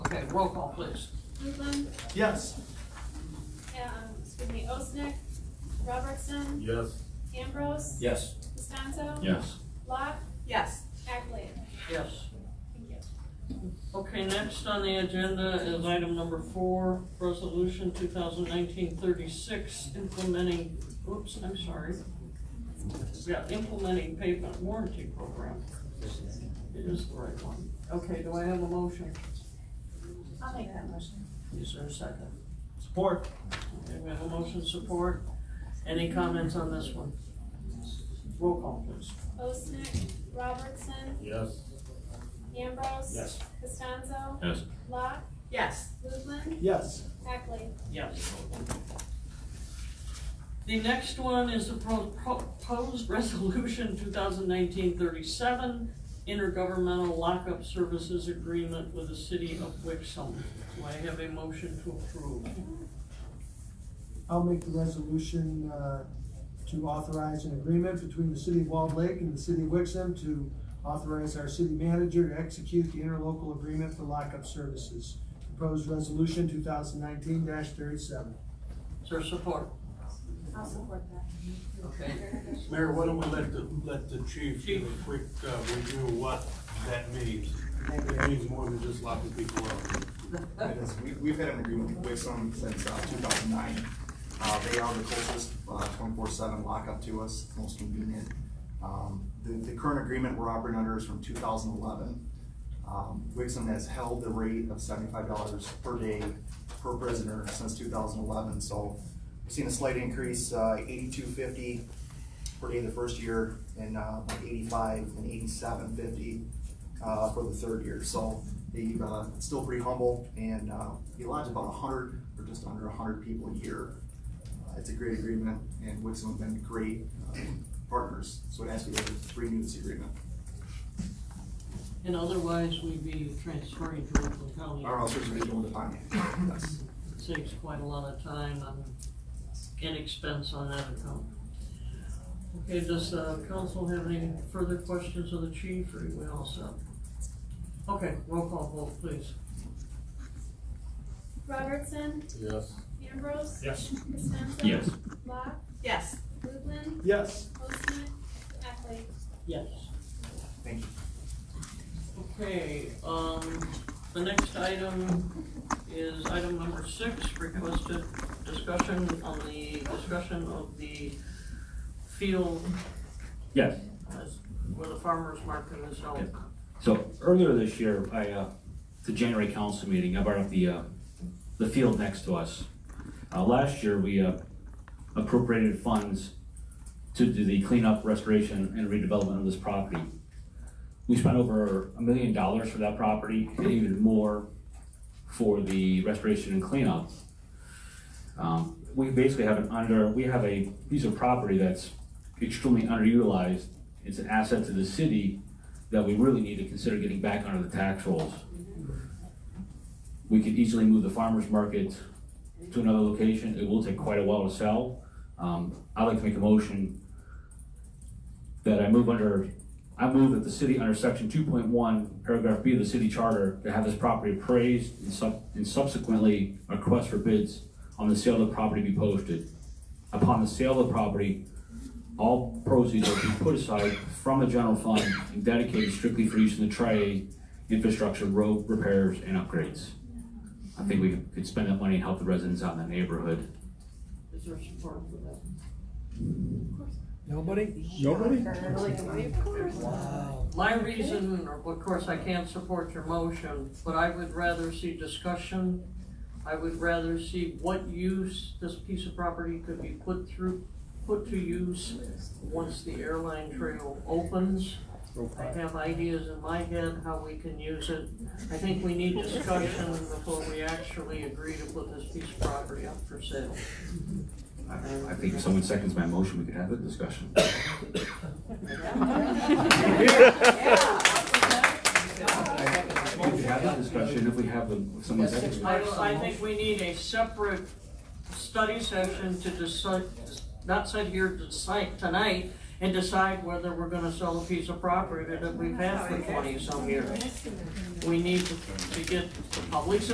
Okay, roll call, please. Rutland, Yes. um, excuse me, Osnick, Robertson, Yes. Ambrose. Yes. Costanzo. Yes. Locke, Yes. Ackley. Yes. Thank you. Okay, next on the agenda is item number four, resolution 2019-36, implementing, oops, I'm sorry. Yeah, implementing pavement warranty program. It is the right one. Okay, do I have a motion? I'll make that motion. Is there a second? Support. Okay, we have a motion support. Any comments on this one? Roll call, please. Osnick, Robertson, Yes. Ambrose. Yes. Costanzo, Yes. Locke, Yes. Rutland, Yes. Ackley. Yes. The next one is the pro- proposed resolution 2019-37, intergovernmental lockup services agreement with the city of Wixom. Do I have a motion to approve? I'll make the resolution uh, to authorize an agreement between the city of Walled Lake and the city of Wixom to authorize our city manager to execute the interlocal agreement for lockup services. Proposed resolution two thousand nineteen thirty-seven. Is there support? I'll support that. Okay. Mayor, why don't we let the, let the chief do Chief. a quick uh, review of what that means? It means more than just locking people up. Yes, we, we've had an agreement with Wixom since, uh, two thousand nine. Uh, they are the closest, uh, twenty-four seven lockup to us, most convenient. Um, the, the current agreement we're operating under is from two thousand eleven. Um, Wixom has held the rate of seventy-five dollars per day per prisoner since two thousand eleven, so we've seen a slight increase, uh, eighty-two fifty per day the first year, and, uh, like eighty-five and eighty-seven fifty, uh, for the third year. So they, uh, it's still pretty humble and, uh, he allows about a hundred or just under a hundred people a year. Uh, It's a great agreement and Wixom have been great, uh, partners, so it has to be renewed this agreement. And otherwise, we'd be transferring to Oakland County. Our officers are doing the finance, yes. Saves quite a lot of time um, and expense on that account. Okay, does uh, council have any further questions of the chief, or are we all set? Okay, roll call vote, please. Robertson, Yes. Ambrose. Yes. Costanzo. Yes. Locke, Yes. Rutland, Yes. Osnick, Ackley. Yes. Thank you. Okay, um, the next item is item number six, requested discussion on the discussion of the field Yes, as- where the farmer's market is held. so earlier this year, I, uh, the January council meeting, I brought up the, uh, the field next to us. Uh, last year, we, uh, appropriated funds to do the cleanup, restoration, and redevelopment of this property. We spent over a million dollars for that property, and even more for the restoration and cleanup. Um, we basically have an under, we have a piece of property that's extremely underutilized. It's an asset to the city, that we really need to consider getting back under the tax rolls. We could easily move the farmer's market to another location, it will take quite a while to sell. Um, I'd like to make a motion that I move under, I move that the city under section two point one, paragraph B of the city charter, to have this property appraised and sub, and subsequently a request for bids on the sale of the property be posted. Upon the sale of the property, all proceeds are to be put aside from the general fund and dedicated strictly for use in the tri infrastructure, road repairs, and upgrades. I think we could spend that money and help the residents out in that neighborhood. Is there support for that? Nobody? My reason, of course, I can't support your motion, but I would rather see discussion. I would rather see what use this piece of property could be put through, put to use once the airline trail opens. I have ideas in my head how we can use it. I think we need discussion before we actually agree to put this piece of property up for sale. I I think if someone seconds my motion, we could have that discussion. We could have that discussion if we have the, if someone seconds. I, don't- I think we need a separate study session to decide, not sit here to decide tonight and decide whether we're gonna sell a piece of property that we've had for twenty some years. We need to to get the public's